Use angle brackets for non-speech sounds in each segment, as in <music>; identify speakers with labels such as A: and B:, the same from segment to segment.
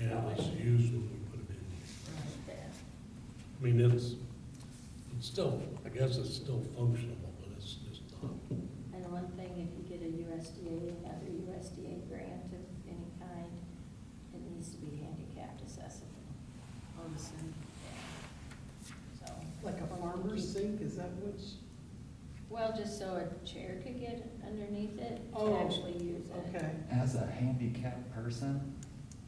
A: at least used when we put it in. I mean, it's, it's still, I guess it's still functional, but it's just not.
B: And the one thing, if you get a USDA, another USDA grant of any kind, it needs to be handicapped accessible.
C: on the sink.
B: So,
C: Like a farmer's sink, is that which?
B: well, just so a chair could get underneath it and
C: Oh,
B: actually use it.
C: Okay.
D: As a handicapped person,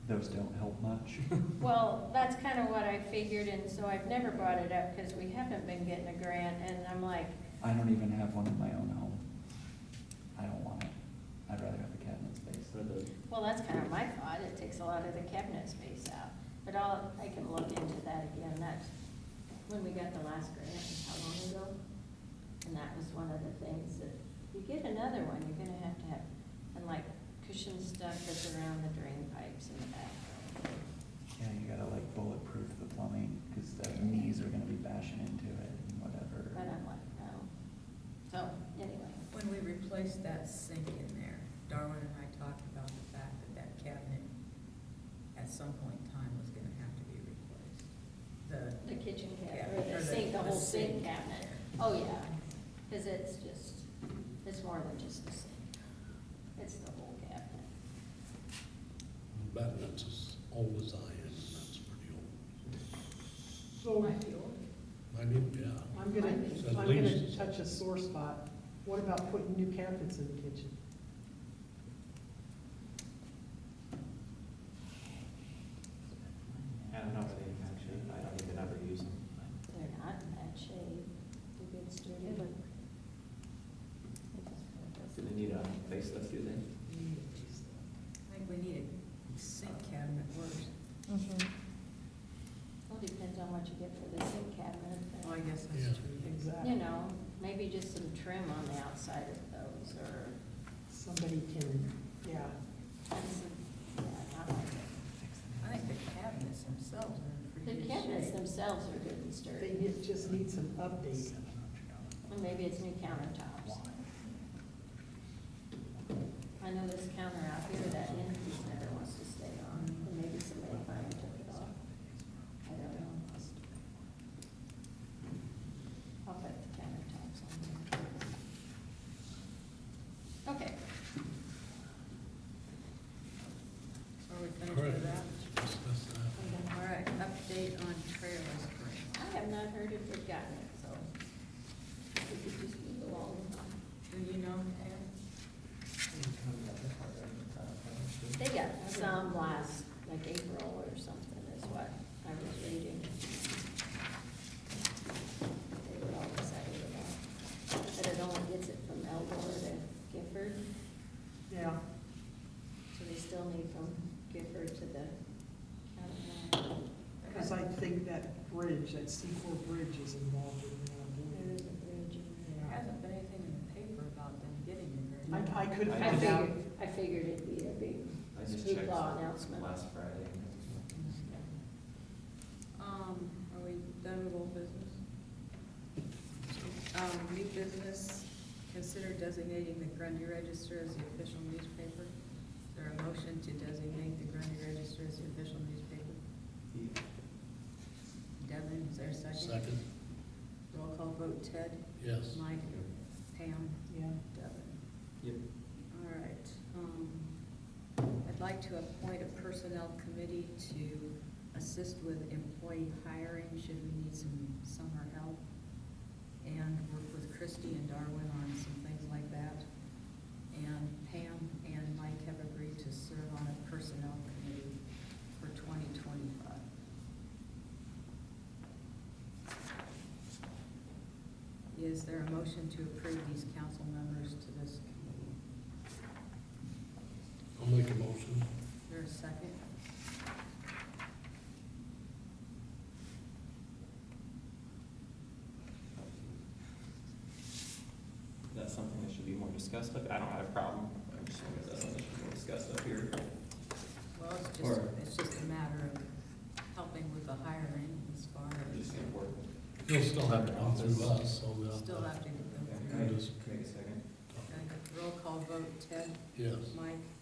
D: those don't help much.
E: <laughs>
B: Well, that's kind of what I figured, and so I've never brought it up because we haven't been getting a grant, and I'm like,
D: I don't even have one in my own home. I don't want it. I'd rather have a cabinet space.
B: well, that's kind of my thought, it takes a lot of the cabinet space out. But I'll, I can look into that again, that's when we got the last grant, how long ago? And that was one of the things that, you get another one, you're gonna have to have, and like cushion stuff that's around the drain pipes in the back.
D: Yeah, you gotta like bulletproof the plumbing, cause the knees are gonna be bashing into it and
B: But
D: whatever.
B: I'm like, no. So, anyway,
F: When we replaced that sink in there, Darwin and I talked about the fact that that cabinet at some point in time was gonna have to be replaced. The,
B: the kitchen
F: Yeah,
B: cabinet, or
F: or
B: the
F: the-
B: sink, the
F: the
B: whole sink
F: sink.
B: cabinet. Oh, yeah, because it's just, it's more than just the sink. It's the whole cabinet.
A: But that's as old as I am, that's pretty old.
F: Oh,
C: So
A: I mean, yeah.
C: I'm gonna,
A: It's
C: I'm
A: at
C: gonna
A: least-
C: touch a sore spot. What about putting new cabinets in the kitchen?
E: I don't know if they actually, I don't even ever use them.
B: They're not in bad shape. They're good sturdy.
E: Do they need a facelift, do they?
F: I think we need a sink cabinet first.
B: Well, depends on what you get for the sink cabinet. but,
F: Well, I guess
A: Yeah.
F: that's true.
B: You
C: Exactly.
B: know, maybe just some trim on the outside of those, or,
C: Somebody can, yeah.
B: and some, yeah, not like
F: I think the cabinets themselves are in
B: it.
F: pretty
B: The
F: good shape.
B: cabinets themselves are good and
C: They
B: sturdy.
C: need- just need some update.
B: And maybe it's new countertops. I know this counter out here that entity's never wants to stay on, and maybe somebody finally took it off. I don't know. I'll put the countertops on there. Okay,
F: Are we finished with that?
A: That's- that's that.
F: All right, update on trailers grant.
B: I have not heard if we've gotten it, so we could just move along.
F: Do you know, Pam?
B: They got some last, like April or something is what I was reading. They were all excited about, but it only gets it from Elmore to Gifford,
C: Yeah.
B: so they still need from Gifford to the county line.
C: Because I think that bridge, that C four bridge is involved in
B: There is a
C: that.
B: bridge in
F: There
B: there.
F: hasn't been anything in the paper about them getting a grant.
C: I, I could
B: I
C: find out.
B: figured, I figured it'd be a big
E: I just
B: Snoop
E: checked
B: Dogg announcement.
E: last Friday.
F: Mm-hmm. Um, are we done with old business? Um, new business, consider designating the Grundy Register as the official newspaper. Is there a motion to designate the Grundy Register as the official newspaper? Devin, is there a second?
A: Second,
F: Roll call vote, Ted,
A: yes.
F: Mike, Pam,
C: Yeah.
F: Devin.
E: Yep.
F: All right, um, I'd like to appoint a personnel committee to assist with employee hiring, should we need some summer help. And work with Christie and Darwin on some things like that. And Pam and Mike have agreed to serve on a personnel committee for twenty twenty-five. Is there a motion to approve these council members to this committee?
A: I'll make a motion.
F: Is there a second?
E: That's something that should be more discussed up, I don't have a problem, I'm just wondering if that's something that should be more discussed up here.
F: Well, it's just,
E: Or-
F: it's just a matter of helping with the hiring as far
E: I'm
F: as,
E: just gonna work.
A: You'll still have to come through us, so uh, we'll.
F: still have to go
E: Okay,
F: through.
E: can I
A: Yes.
E: just- can I get a second?
F: Okay, Roll call vote, Ted,
A: Yes,
F: Mike,